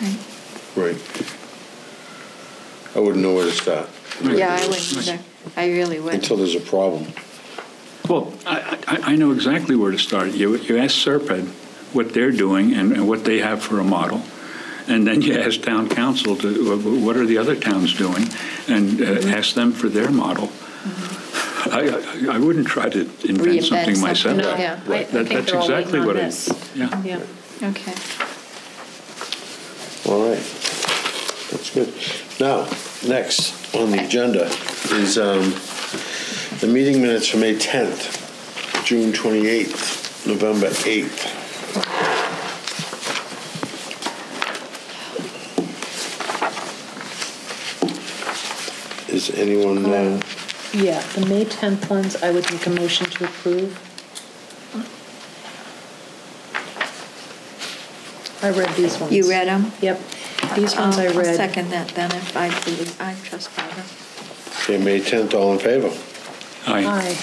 Right. Right. I wouldn't know where to start Yeah, I wouldn't either. I really wouldn't. until there's a problem. Well, I, I I know exactly where to start. You, you ask Serped what they're doing and, and what they have for a model, and then you ask town council to, wh- what are the other towns doing, and uh, ask them for their model. I, I I wouldn't try to invent Reinvent something something, myself. no, yeah. I- I That- think That's they're all exactly waiting what on I, this. yeah. Yeah, okay. All right. That's good. Now, next on the agenda is um, the meeting minutes from May 10th, June 28th, November 8th. Is anyone, uh, Yeah, the May 10th ones, I would make a motion to approve. I read these ones. You read 'em? Yep. These ones I I'll- I'll read. second that then, if I believe, I trust Barbara. okay, May 10th, all in favor? Aye. Aye.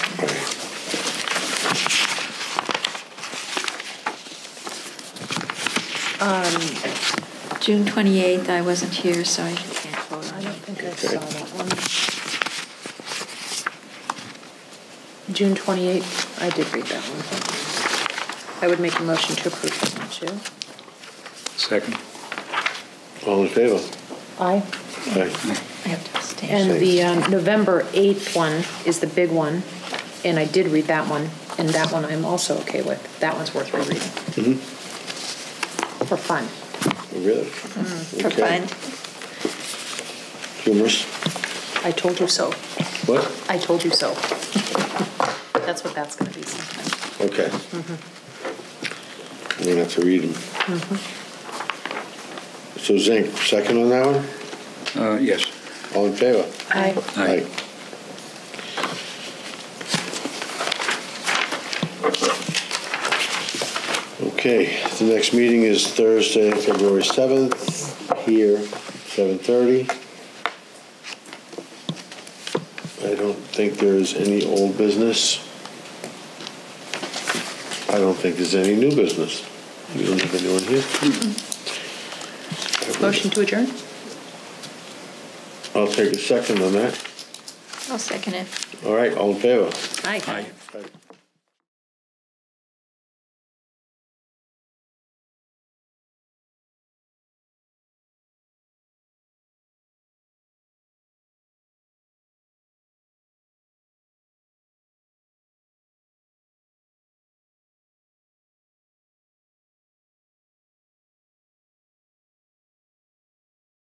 June 28th, I wasn't here, so I can't vote I on don't it. think I Okay. saw that one. June 28th, I did read that one. I would make a motion to approve that one too. Second. All in favor? Aye. Aye. I have to abstain. And the um, November 8th one is the big one, and I did read that one, and that one I'm also okay with. That one's worth rereading. For fun. Really? For Okay. fun. Humorous? I told you so. What? I told you so. That's what that's gonna be sometime. Okay. We're gonna have to read them. So Zink, second on that one? Uh, Yes. All in favor? Aye. Aye. Okay, the next meeting is Thursday, February 7th, here, 7:30. I don't think there is any old business. I don't think there's any new business. We don't have anyone here. Motion to adjourn? I'll take a second on that. I'll second it. All right, all in favor? Aye. Aye. Aye.